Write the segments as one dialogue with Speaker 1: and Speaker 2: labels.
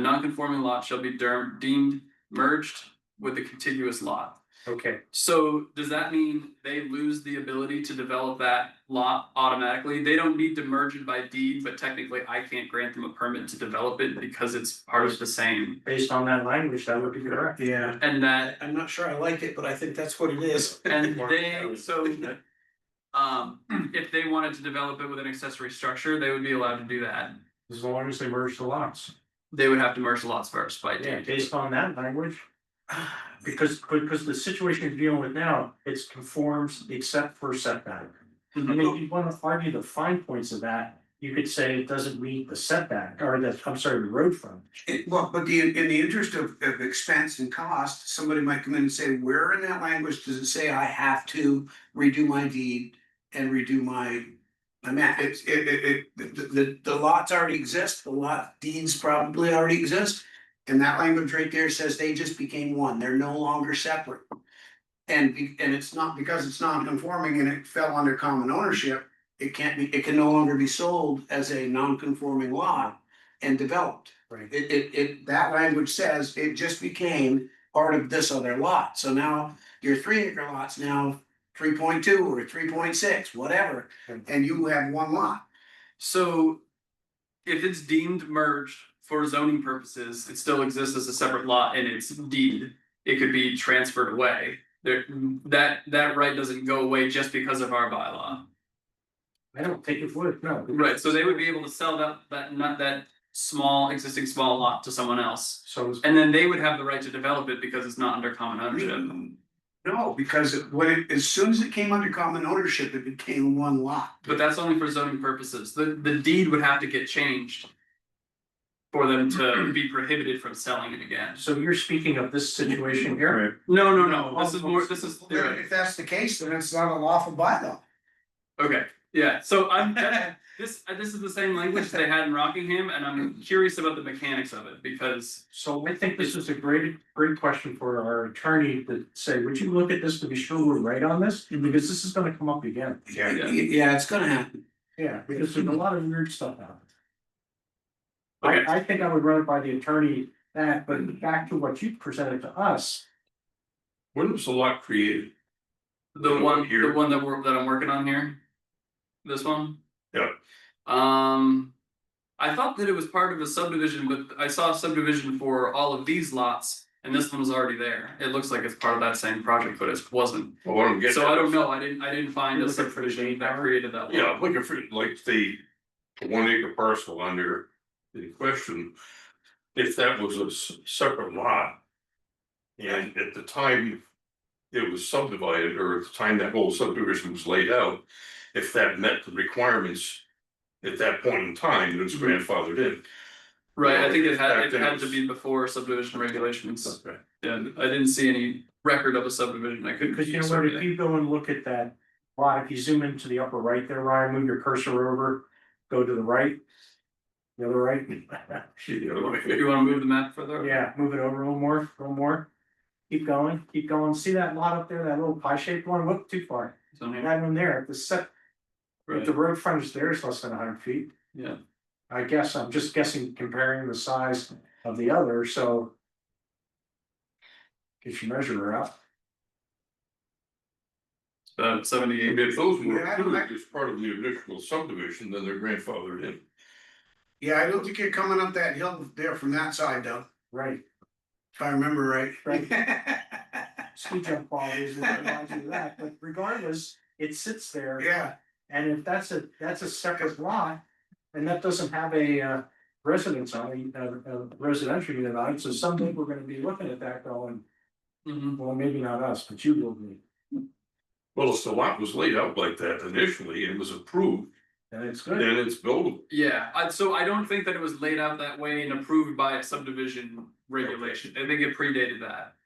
Speaker 1: The non-conforming lot shall be der- deemed merged with the contiguous lot.
Speaker 2: Okay,
Speaker 1: So does that mean they lose the ability to develop that lot automatically? They don't need to merge it by deed, but technically I can't grant them a permit to develop it because it's part of the same.
Speaker 2: based on that language, that would be correct.
Speaker 3: Yeah,
Speaker 1: And that,
Speaker 3: I'm not sure I like it, but I think that's what it is.
Speaker 1: and they, so. Um, if they wanted to develop it with an accessory structure, they would be allowed to do that.
Speaker 2: As long as they merge the lots.
Speaker 1: They would have to merge the lots first by
Speaker 2: Yeah,
Speaker 1: deed.
Speaker 2: based on that language.
Speaker 3: Ah.
Speaker 2: Because, because the situation you're dealing with now, it's conforms except for setback. I
Speaker 3: Mm-hmm.
Speaker 2: mean, if you wanna argue the fine points of that, you could say it doesn't meet the setback, or the, I'm sorry, the road front.
Speaker 4: It- well, but the, in the interest of, of expense and cost, somebody might come in and say, where in that language does it say I have to redo my deed and redo my, my map? It's, it, it, it, the, the, the lots already exist, the lot deeds probably already exist. And that language right there says they just became one, they're no longer separate. And, be- and it's not, because it's non-conforming and it fell under common ownership, it can't be, it can no longer be sold as a non-conforming lot and developed.
Speaker 2: Right.
Speaker 4: It, it, it, that language says it just became part of this other lot, so now your three acre lot's now three point two or three point six, whatever.
Speaker 2: Right.
Speaker 4: And you have one lot,
Speaker 1: So if it's deemed merged for zoning purposes, it still exists as a separate lot and it's deed. It could be transferred away. There, that, that right doesn't go away just because of our bylaw.
Speaker 2: I don't think it would, no.
Speaker 1: Right, so they would be able to sell that, that, not that small, existing small lot to someone else.
Speaker 2: So, it's-
Speaker 1: And then they would have the right to develop it because it's not under common ownership.
Speaker 4: no, because it- when it, as soon as it came under common ownership, it became one lot.
Speaker 1: But that's only for zoning purposes. The, the deed would have to get changed for them to be prohibited from selling it again.
Speaker 2: so you're speaking of this situation here?
Speaker 1: No, no, no, this is more, this is
Speaker 4: Then
Speaker 1: theory.
Speaker 4: If that's the case, then it's not a lawful bylaw.
Speaker 1: Okay, yeah, so I'm, that- this, uh, this is the same language they had in Rockingham, and I'm curious about the mechanics of it, because.
Speaker 2: So I think this is a great, great question for our attorney to say, would you look at this to be sure we're right on this? Because this is gonna come up again.
Speaker 4: Yeah, yeah, it's gonna happen.
Speaker 2: Yeah, because there's a lot of weird stuff out there.
Speaker 1: Okay,
Speaker 2: I, I think I would run it by the attorney that, but back to what you presented to us,
Speaker 5: When was the lot created?
Speaker 1: the one, the
Speaker 5: Here.
Speaker 1: one that we're, that I'm working on here, this one?
Speaker 5: Yeah.
Speaker 1: Um, I thought that it was part of a subdivision, but I saw a subdivision for all of these lots, and this one was already there. It looks like it's part of that same project, but it wasn't,
Speaker 5: Well, what I'm getting.
Speaker 1: so I
Speaker 5: at
Speaker 1: don't
Speaker 5: is-
Speaker 1: know, I didn't, I didn't find
Speaker 2: You're
Speaker 1: a
Speaker 2: looking for the
Speaker 1: subdivision
Speaker 2: date
Speaker 1: that
Speaker 2: now?
Speaker 1: created that. lot.
Speaker 5: Yeah, I'm looking for like the one acre parcel under the question, if that was a s- separate lot. And at the time it was subdivided, or at the time that whole subdivision was laid out, if that met the requirements. At that point in time, it was
Speaker 1: Mm-hmm.
Speaker 5: grandfathered in.
Speaker 1: Right, I think it had, it
Speaker 5: Back then
Speaker 1: had
Speaker 5: it
Speaker 1: to
Speaker 5: was-
Speaker 1: be before subdivision regulations, and I didn't see any record of a subdivision, I couldn't.
Speaker 2: because you know
Speaker 1: sort
Speaker 2: what,
Speaker 1: of-
Speaker 2: if you go and look at that lot, if you zoom into the upper right there, Ryan, move your cursor over, go to the right. The other right,
Speaker 5: You know, like,
Speaker 1: You wanna move the map further?
Speaker 2: yeah, move it over a little more, a little more. Keep going, keep going, see that lot up there, that little pie shaped one, whoop, too far,
Speaker 1: It's on
Speaker 2: And
Speaker 1: here,
Speaker 2: that one there, the set, if
Speaker 1: right.
Speaker 2: the road frontage there is less than hundred feet.
Speaker 1: Yeah.
Speaker 2: I guess I'm just guessing comparing the size of the other, so. If you measure her out,
Speaker 1: About seventy-eight.
Speaker 5: And if those were
Speaker 4: Yeah, I don't-
Speaker 5: approved as part of the original subdivision, then they're grandfathered in.
Speaker 4: Yeah, I don't think you're coming up that hill there from that side though,
Speaker 2: right,
Speaker 4: if I remember right.
Speaker 2: speed jump qualities and reminds you of that, but regardless, it sits there.
Speaker 4: Yeah.
Speaker 2: And if that's a, that's a separate lot, and that doesn't have a uh, residence on it, a a residential unit on it, so someday we're gonna be looking at that going,
Speaker 1: Mhm.
Speaker 2: well, maybe not us, but you will be.
Speaker 5: Well, if the lot was laid out like that initially and was approved,
Speaker 2: And it's
Speaker 5: then
Speaker 2: good,
Speaker 5: it's buildable.
Speaker 1: Yeah, I, so I don't think that it was laid out that way and approved by a subdivision regulation, I think it predated that.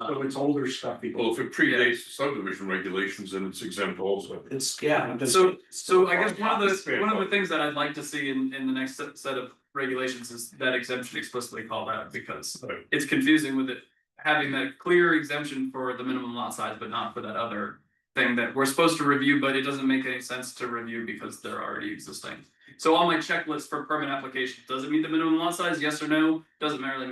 Speaker 2: so
Speaker 1: Um,
Speaker 2: it's older stuff, people.
Speaker 1: Oh.
Speaker 5: Well, if it predates the subdivision regulations, then it's exempt also.
Speaker 4: It's, yeah, just-
Speaker 1: So, so I guess one of the,
Speaker 5: Fair
Speaker 1: one of the
Speaker 5: point.
Speaker 1: things that I'd like to see in, in the next set- set of regulations is that exemption explicitly called out, because
Speaker 5: Right.
Speaker 1: it's confusing with it. Having that clear exemption for the minimum lot size, but not for that other thing that we're supposed to review, but it doesn't make any sense to review because they're already existing. So on my checklist for permit application, does it meet the minimum lot size? Yes or no? Doesn't really matter.